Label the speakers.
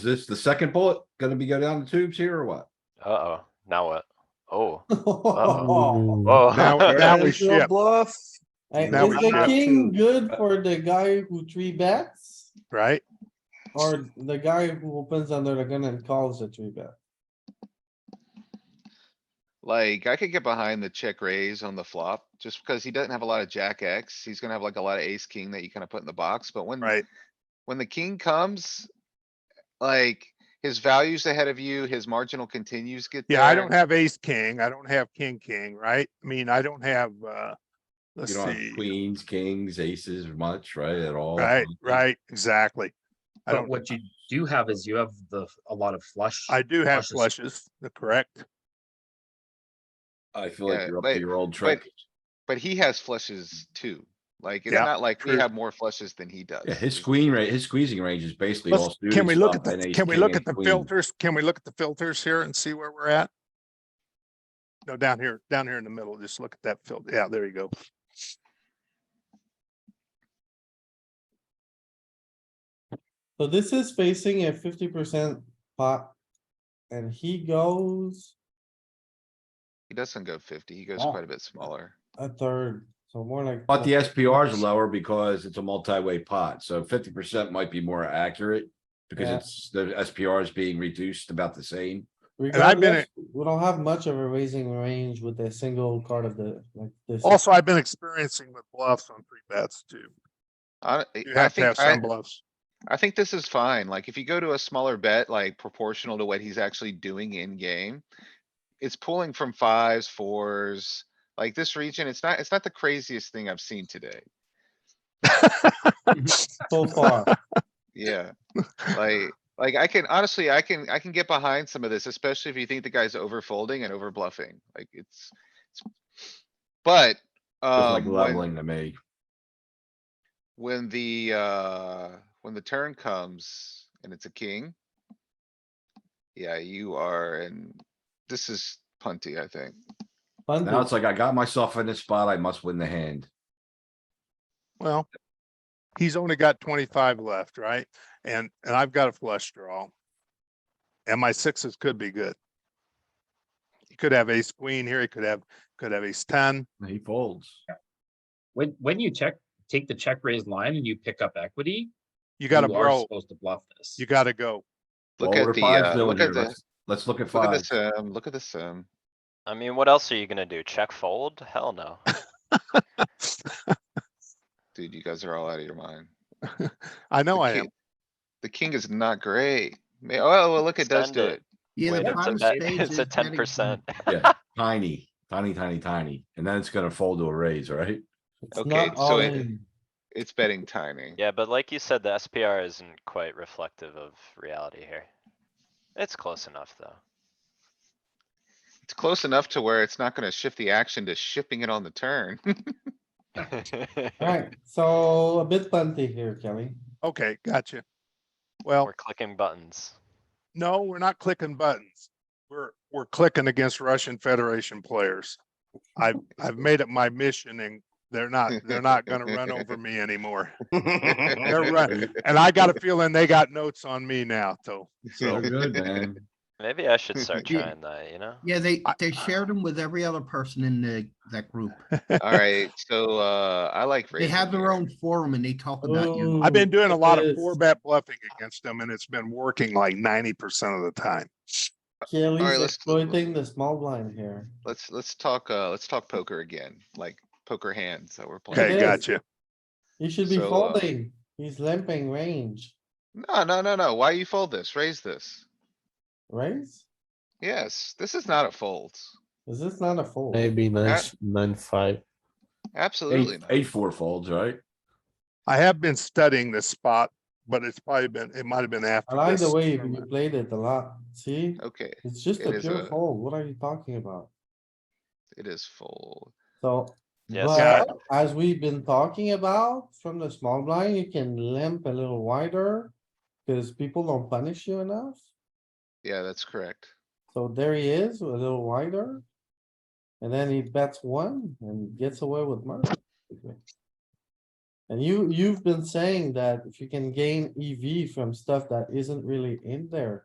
Speaker 1: Is this the second bullet gonna be go down the tubes here or what?
Speaker 2: Uh-oh, now what? Oh,
Speaker 3: Ooh.
Speaker 2: oh.
Speaker 4: Now- now we
Speaker 3: There's your
Speaker 4: ship.
Speaker 3: Bluff.
Speaker 5: Hey, Is
Speaker 4: Now we
Speaker 5: the
Speaker 4: ship.
Speaker 5: king good for the guy who three bets?
Speaker 4: right?
Speaker 5: Or the guy who opens under the gun and calls a three bet?
Speaker 6: Like, I could get behind the check raise on the flop, just because he doesn't have a lot of jack X. He's gonna have like a lot of ace king that you kinda put in the box, but when,
Speaker 4: Right.
Speaker 6: when the king comes. Like, his value's ahead of you, his marginal continues get there.
Speaker 4: Yeah, I don't have ace, king. I don't have king, king, right? I mean, I don't have, uh, let's
Speaker 1: You don't have
Speaker 4: see,
Speaker 1: queens, kings, aces much, right, at all?
Speaker 4: right, right, exactly.
Speaker 3: But
Speaker 4: I don't,
Speaker 3: what you do have is you have the, a lot of flush.
Speaker 4: I do have
Speaker 3: flushes.
Speaker 4: flushes, the correct.
Speaker 1: I feel like
Speaker 6: Yeah,
Speaker 1: you're up
Speaker 6: but-
Speaker 1: to your old trick.
Speaker 6: But he has flushes too. Like, it's
Speaker 4: Yeah,
Speaker 6: not like we
Speaker 4: true.
Speaker 6: have more flushes than he does.
Speaker 1: Yeah, his queen rate, his squeezing range is basically
Speaker 4: Let's-
Speaker 1: all suited
Speaker 4: Can we look at
Speaker 1: stuff and
Speaker 4: the,
Speaker 1: ace
Speaker 4: can we
Speaker 1: king,
Speaker 4: look
Speaker 1: ace
Speaker 4: at the
Speaker 1: queen.
Speaker 4: filters? Can we look at the filters here and see where we're at? No, down here, down here in the middle, just look at that filter. Yeah, there you go.
Speaker 5: So this is facing a fifty percent pot. And he goes
Speaker 6: He doesn't go fifty, he goes
Speaker 5: Wow.
Speaker 6: quite a bit smaller.
Speaker 5: a third, so more like.
Speaker 1: But the SPR is lower because it's a multi-way pot, so fifty percent might be more accurate. Because
Speaker 5: Yeah.
Speaker 1: it's, the SPR is being reduced about the same.
Speaker 4: I've been
Speaker 5: uh, Regardless, we don't have much of a raising range with a single card of the, like this.
Speaker 4: Also, I've been experiencing with bluffs on three bets too.
Speaker 6: I,
Speaker 4: You
Speaker 6: I
Speaker 4: have to have
Speaker 6: think, I,
Speaker 4: some bluffs.
Speaker 6: I think this is fine. Like, if you go to a smaller bet, like proportional to what he's actually doing in game. It's pulling from fives, fours, like this region, it's not, it's not the craziest thing I've seen today.
Speaker 5: So far,
Speaker 6: Yeah, like, like I can honestly, I can, I can get behind some of this, especially if you think the guy's over folding and over bluffing, like it's. it's- But,
Speaker 1: Feels like
Speaker 6: um, when,
Speaker 1: leveling to me.
Speaker 6: when the, uh, when the turn comes and it's a king. Yeah, you are, and this is punty, I think.
Speaker 5: fun
Speaker 1: Now
Speaker 5: to
Speaker 1: it's like I got myself in this spot, I must win the hand.
Speaker 4: Well, he's only got twenty-five left, right? And, and I've got a flush draw. And my sixes could be good. He could have ace queen here, he could have, could have ace ten.
Speaker 1: He folds.
Speaker 7: When, when you check, take the check raise line and you pick up equity.
Speaker 4: You gotta
Speaker 7: you are
Speaker 4: bro,
Speaker 7: Supposed to bluff this.
Speaker 4: you gotta go.
Speaker 6: Look
Speaker 1: Well,
Speaker 6: at
Speaker 1: what are
Speaker 6: the,
Speaker 1: fives
Speaker 6: uh,
Speaker 1: doing
Speaker 6: look
Speaker 1: here?
Speaker 6: at the,
Speaker 1: Let's- Let's look at
Speaker 6: look at
Speaker 4: uh,
Speaker 1: five.
Speaker 6: this, um, look at this, um,
Speaker 2: I mean, what else are you gonna do? Check fold? Hell no.
Speaker 6: dude, you guys are all out of your mind.
Speaker 4: I know
Speaker 6: The
Speaker 4: I
Speaker 6: king-
Speaker 4: am.
Speaker 6: The king is not great. May, oh, well, look, it does
Speaker 2: Send
Speaker 6: do
Speaker 2: it.
Speaker 6: it.
Speaker 8: Yeah,
Speaker 2: Wait,
Speaker 8: the
Speaker 6: Wait,
Speaker 2: It's a
Speaker 8: prime
Speaker 2: bet-
Speaker 8: spades
Speaker 2: it's a
Speaker 8: is betting
Speaker 2: ten percent.
Speaker 1: Yeah, tiny, tiny, tiny, tiny. And then it's gonna fold to a raise, right?
Speaker 5: It's
Speaker 6: Okay,
Speaker 5: not
Speaker 6: so
Speaker 5: all
Speaker 6: it-
Speaker 5: in.
Speaker 6: It's betting tiny.
Speaker 2: Yeah, but like you said, the SPR isn't quite reflective of reality here. It's close enough, though.
Speaker 6: It's close enough to where it's not gonna shift the action to shipping it on the turn.
Speaker 5: Alright, so a bit punty here, Kelly.
Speaker 4: Okay, gotcha. Well,
Speaker 2: We're clicking buttons.
Speaker 4: no, we're not clicking buttons. We're, we're clicking against Russian Federation players. I've, I've made it my mission and they're not, they're not gonna run over me anymore. They're right. And I got a feeling they got notes on me now, though.
Speaker 1: So Oh, good, man.
Speaker 2: Maybe I should start
Speaker 8: Yeah.
Speaker 2: trying that, you know?
Speaker 8: Yeah, they,
Speaker 4: I-
Speaker 8: they shared them with every other person in the, that group.
Speaker 6: Alright, so, uh, I like.
Speaker 8: They have
Speaker 6: raising
Speaker 8: their
Speaker 6: here.
Speaker 8: own forum and they talk about you.
Speaker 4: I've been
Speaker 5: Ooh,
Speaker 4: doing a lot of
Speaker 5: yes.
Speaker 4: four bet bluffing against them and it's been working like ninety percent of the time.
Speaker 5: Kelly's
Speaker 6: let's-
Speaker 5: exploiting the small blind here.
Speaker 6: Let's, let's talk, uh, let's talk poker again, like poker hands that we're playing.
Speaker 4: Okay,
Speaker 5: is.
Speaker 4: gotcha.
Speaker 5: He should be
Speaker 6: So, uh,
Speaker 5: folding. He's limping range,
Speaker 6: No, no, no, no. Why you fold this? Raise this.
Speaker 5: right?
Speaker 6: Yes, this is not a fold.
Speaker 5: Is this not a fold?
Speaker 3: Maybe nine,
Speaker 6: That-
Speaker 3: nine, five.
Speaker 6: Absolutely
Speaker 1: Eight,
Speaker 6: not.
Speaker 1: eight, four folds, right?
Speaker 4: I have been studying this spot, but it's probably been, it might have been after.
Speaker 5: I like the
Speaker 4: this
Speaker 5: way you
Speaker 4: tournament.
Speaker 5: played it a lot. See,
Speaker 6: Okay,
Speaker 5: it's just
Speaker 6: It
Speaker 5: a
Speaker 6: is
Speaker 5: pure
Speaker 6: a-
Speaker 5: fold. What are you talking about?
Speaker 6: it is fold.
Speaker 5: So.
Speaker 2: Yes.
Speaker 5: but As we've been talking about from the small blind, you can limp a little wider. Cause people don't punish you enough.
Speaker 6: Yeah, that's correct.
Speaker 5: So there he is, a little wider. And then he bets one and gets away with murder. And E you, you've been saying that if you can gain EV from stuff that isn't really in there,